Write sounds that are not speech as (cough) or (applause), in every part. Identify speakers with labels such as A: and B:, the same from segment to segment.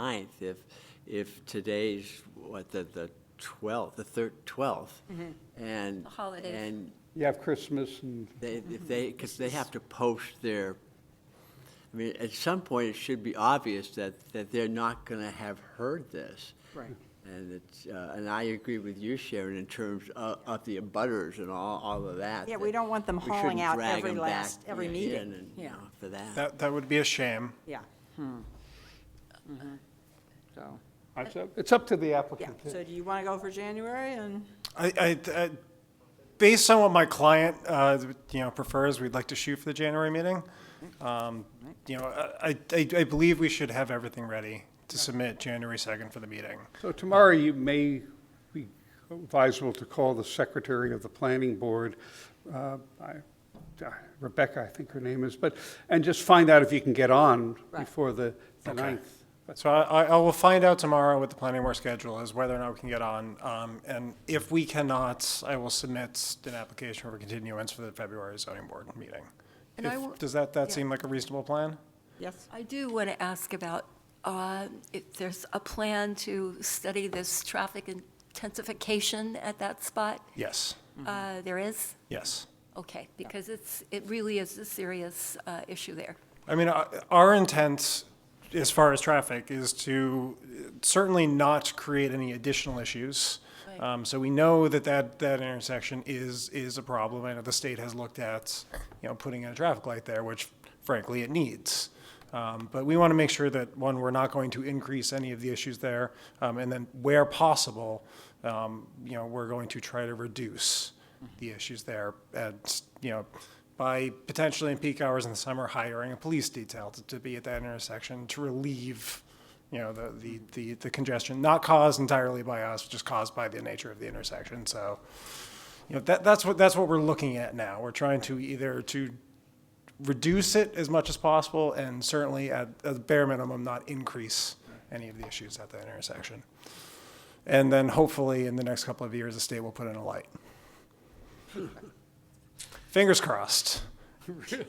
A: 9th, if, if today's, what, the, the 12th, the third, 12th,
B: Mm-hmm.
A: and.
C: The holidays.
A: And
D: You have Christmas and,
A: they,
B: Mm-hmm.
A: if they, because they have to post their, I mean, at some point, it should be obvious that, that they're not going to have heard this.
B: Right.
A: And it's, uh, and I agree with you, Sharon, in terms of, of the abutters and all, all of that.
B: Yeah, we don't want them
A: We shouldn't
B: hauling out
A: drag
B: every
A: 'em back
B: last- every
A: in
B: meeting.
A: and, you
B: Yeah.
A: know, For that.
E: That, that would be a shame.
B: yeah. Mhm. Hmm. So,
D: it's up- it's up to the
B: yeah,
D: applicant.
B: so do you want to go for January and,
E: I, I, I, based on what my client, uh, you know, prefers, we'd like to shoot for the January meeting. Um, you know, I, I, I believe we should have everything ready to submit January second for the meeting.
D: So tomorrow, you may be advisable to call the secretary of the planning board, uh, I- uh, Rebecca, I think her name is, but, and just find out if you can get on
B: Right.
D: before the the
E: Okay.
D: 9th. But
E: So I, I I will find out tomorrow what the planning board schedule is, whether or not we can get on. Um, and if we cannot, I will submit an application for continuance for the February zoning board meeting.
C: And I
E: If-
C: will-
E: Does that, that seem like a reasonable plan?
B: yes?
C: I do want to ask about, uh, if there's a plan to study this traffic intensification at that spot?
E: Yes,
C: Uh, There is?
E: yes.
C: Okay, because it's, it really is a serious uh, issue there.
E: I mean, uh, our intent, as far as traffic, is to certainly not create any additional issues.
C: Right.
E: Um, So we know that that, that intersection is, is a problem. I know the state has looked at, you know, putting in a traffic light there, which frankly it needs. Um, But we want to make sure that, one, we're not going to increase any of the issues there. um, And then where possible, um, you know, we're going to try to reduce the issues there. And, you know, by potentially in peak hours in the summer, hiring a police detail to, to be at that intersection to relieve, you know, the, the, the, the congestion, not caused entirely by us, just caused by the nature of the intersection. So, you know, that, that's what, that's what we're looking at now. We're trying to either to reduce it as much as possible and certainly at, at the bare minimum, not increase any of the issues at that intersection. And then hopefully in the next couple of years, the state will put in a
B: (laughs)
E: light. Fingers crossed.
B: (laughs)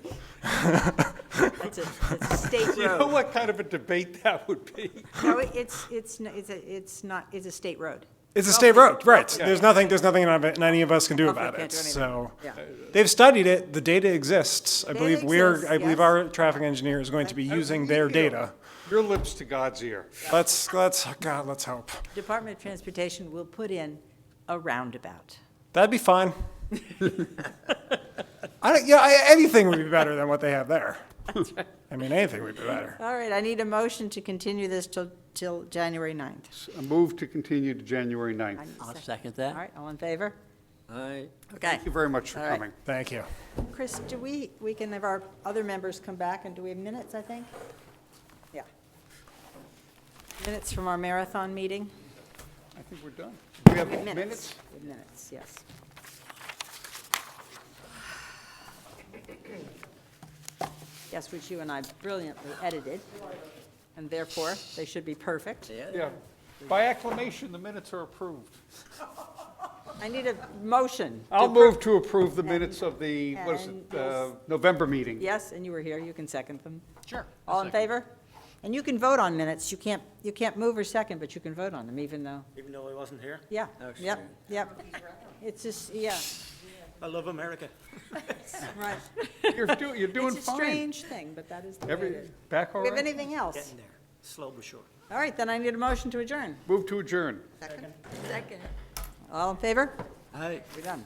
B: It's a it's a state (laughs)
D: You know
B: road.
D: what kind of a debate that would be?
B: No, it's, it's, n- it's, a- it's not, it's a state road.
E: It's a state road, right? There's nothing, there's nothing none of- any of us can do
B: Hopefully
E: about
B: can't
E: it.
B: do anything.
E: So
B: Yeah.
E: they've studied it. The data exists. I
B: Data
E: believe we're,
B: exists,
E: I believe
B: yes. Oh,
E: our traffic engineer is going to be using their
D: (laughs) You know,
E: data.
D: Your lips to God's ear.
E: Let's, let's, oh God, let's hope.
B: Department of Transportation will put in a roundabout.
E: That'd be fine. (laughs) I don't, yeah, I- anything would be better than what they have there. I mean, anything would be better.
B: All right, I need a motion to continue this till, till January 9th.
D: A move to continue to January 9th.
B: I need a
A: I'll
B: second.
A: second
B: All
A: that.
B: right, all in favor?
A: Aye.
B: Okay.
D: Thank you very much for
B: All right.
D: coming.
E: Thank you.
B: Chris, do we, we can have our other members come back, and do we have minutes, I think? Yeah. Minutes from our marathon meeting?
D: I think we're done. Do we have minutes?
B: We have Minutes, yes. Yes, which you and I brilliantly edited, and therefore, they should be perfect.
D: Yeah. By acclamation, the minutes are approved.
B: I need a motion. to
D: I'll
B: appro-
D: move to approve the minutes of the, what is
B: and
D: it, uh, November meeting.
B: Yes, and you were here, you can second them.
D: Sure.
B: All in favor? And you can vote on minutes, you can't, you can't move or second, but you can vote on them, even though,
F: Even though I wasn't here,
B: yeah,
A: Oh,
B: yep,
A: sure.
B: yep. It's just, yeah,
F: I love America.
B: right.
D: You're doing, you're doing
B: (laughs) It's a
D: fine.
B: strange thing, but that is the way it
D: Every,
B: is.
D: back
B: Do
D: all
B: we have
D: right?
B: anything else?
F: Getting there, slow but sure.
B: All right, then I need a motion to adjourn.
D: Move to adjourn.
B: All in favor?
A: Aye.
B: We're done.